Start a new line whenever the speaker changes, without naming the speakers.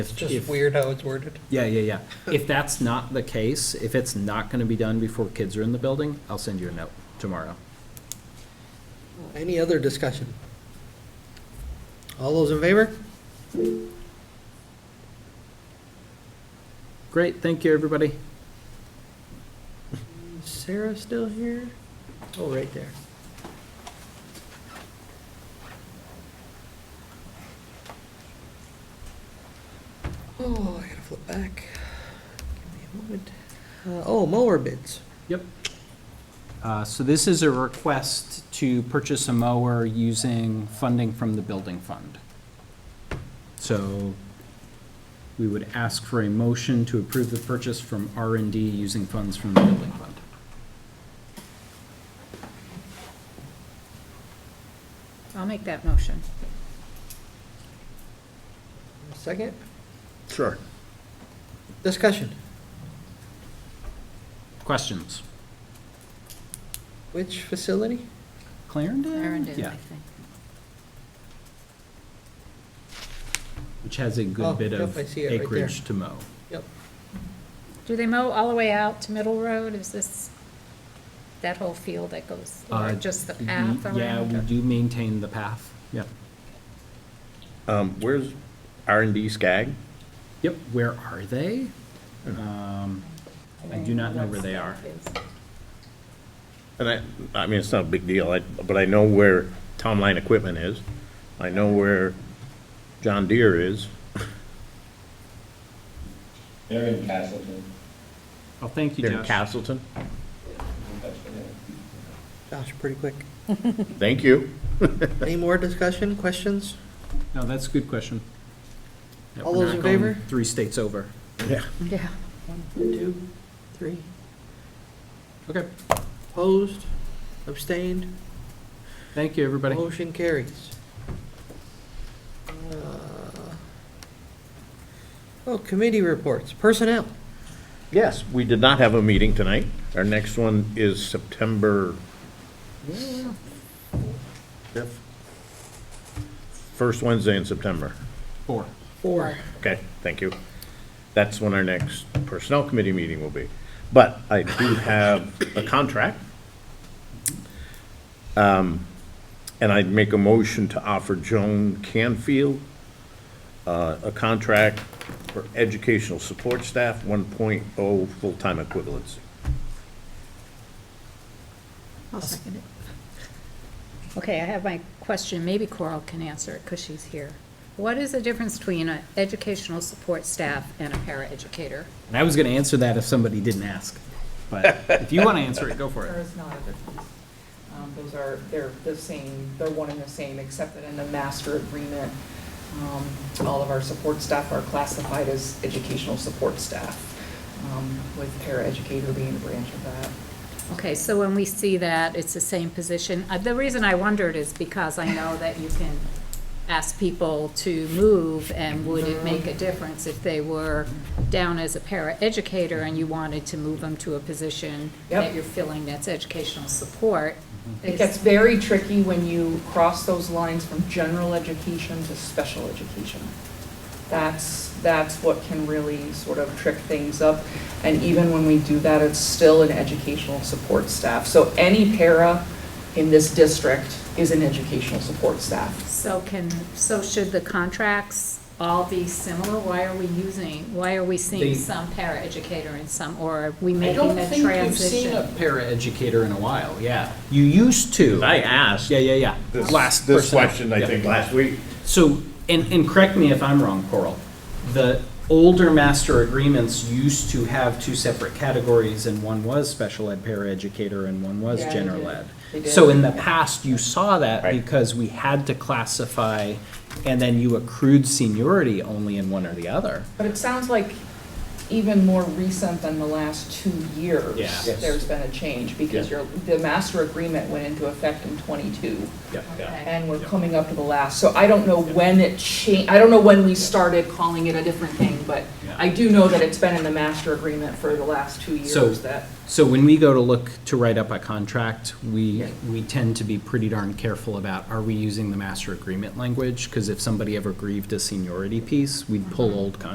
If-
Just
if-
weird how it's worded.
Yeah, yeah, yeah. If that's not the case, if it's not gonna be done before kids are in the building, I'll send you a note tomorrow.
Any other discussion? All those in favor?
Great, thank you, everybody.
Is Sarah still here? Oh, right there. Oh, I gotta flip back. Give me a moment. Uh, oh, mower bids.
Yep. Uh, so this is a request to purchase a mower using funding from the building fund. So we would ask for a motion to approve the purchase from R and D using funds from the building fund.
I'll make that motion.
Second,
Sure.
discussion.
Questions?
Which facility?
Clarendon?
Clarendon,
Yeah,
I think.
which has a
Oh,
good bit
yep,
of
I see it right there.
acreage to mow.
Yep.
Do they mow all the way out to Middle Road? Is this that whole field that goes, or
Uh,
just the
we-
path
Yeah, we
around?
do maintain the path, yep.
Um, where's R and D Skag?
Yep, where are they? Um, I do not know where they are.
And I, I mean, it's not a big deal, I, but I know where Tom Line Equipment is. I know where John Deere is.
They're in Castleton.
Oh, thank you,
They're in
Josh.
Castleton.
Josh, pretty quick.
Thank you.
Any more discussion, questions?
No, that's a good question. Yeah,
All
we're
those
not
in
going
favor?
Three states over.
Yeah.
Yeah.
Two, three.
Okay,
Opposed, abstained,
thank you, everybody.
motion carries. Uh, Oh, committee reports, personnel.
Yes, we did not have a meeting tonight. Our next one is September fifth. First Wednesday in September.
Four.
Four.
Okay, thank you. That's when our next Personnel Committee meeting will be. But I do have a contract. Um, And I'd make a motion to offer Joan Canfield uh, a contract for educational support staff, 1.0 full-time equivalency.
I'll second it. Okay, I have my question. Maybe Coral can answer it because she's here. What is the difference between an educational support staff and a paraeducator?
And I was gonna answer that if somebody didn't ask, but if you wanna answer it, go for
There
it.
is not a difference. Um, Those are, they're the same, they're one and the same, except that in the master agreement, um, all of our support staff are classified as educational support staff, um, with paraeducator being a branch of that.
Okay, so when we see that, it's the same position. Uh, The reason I wondered is because I know that you can ask people to move, and would it make a difference if they were down as a paraeducator and you wanted to move them to a position that
Yep.
you're filling that's educational support?
It
Mm-hmm.
Is-
gets very tricky when you cross those lines from general education to special education. That's, that's what can really sort of trick things up. And even when we do that, it's still an educational support staff. So any para in this district is an educational support staff.
So can, so should the contracts all be similar? Why are we using, why are we
They-
seeing some paraeducator and some, or are we
I
making
don't
the
think we've
transition?
seen a paraeducator in a while, yeah. You used to.
I asked.
Yeah, yeah, yeah. Last personnel. Yeah.
last week.
So, and, and correct me if I'm wrong, Coral, the older master agreements used to have two separate categories, and one was special ed paraeducator and one was
Yeah, they
general
did.
ed.
They
So
did.
in the past, you saw that
Right.
because we had to classify, and then you accrued seniority only in one or the other.
But it sounds like even more recent than the last two years.
Yeah. Yes.
There's been a change because
Yeah.
your, the master agreement went into effect in '22.
Okay.
and we're
Yeah.
coming up to the last, so I don't know when it changed, I don't know when we started calling it a different thing, but
Yeah.
I do know that it's been in the master agreement for the last two
So-
years that,
So when we go to look to write up a contract, we, we tend to be pretty darn careful about, are
Mm-hmm.
we using the master agreement language? Because if somebody ever grieved a seniority piece, we'd pull old contracts